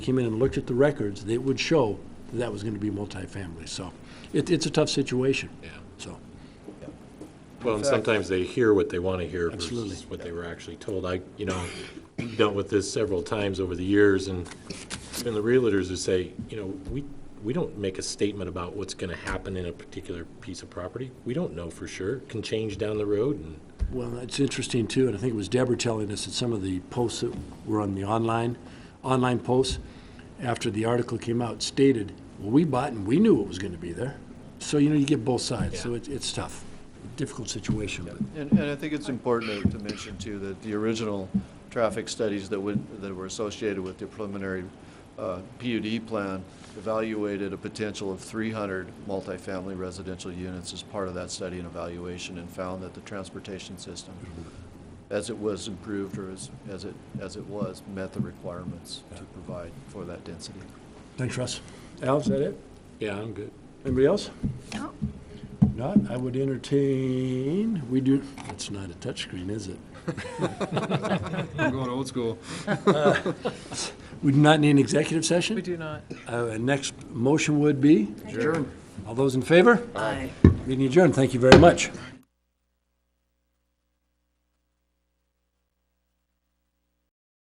came in and looked at the records, it would show that that was going to be multifamily. So it, it's a tough situation. Yeah. So, Well, and sometimes they hear what they want to hear versus Absolutely. what they were actually told. I, you know, dealt with this several times over the years, and even the realtors who say, you know, we, we don't make a statement about what's going to happen in a particular piece of property. We don't know for sure. It Can change down the road, and well, it's interesting too, and I think it was Deborah telling us that some of the posts that were on the online, online posts, after the article came out, stated, well, we bought and we knew it was going to be there. So, you know, you get both sides. So Yeah. it's, it's tough, difficult situation, but. And, and I think it's important to- to mention too, that the original traffic studies that would, that were associated with the preliminary uh, PUD plan evaluated a potential of 300 multifamily residential units as part of that study and evaluation and found that the transportation system, as it was improved or as, as it, as it was, met the requirements to provide for that density. Thanks, Russ. Al, is that it? yeah, I'm good. Anybody else? Not, I would entertain, we do, that's not a touchscreen, is it? I'm going old school. Uh, We do not need an executive session? We do not. Uh, Next motion would be? Adjourn. All those in favor? Aye. Meeting adjourned. Thank you very much.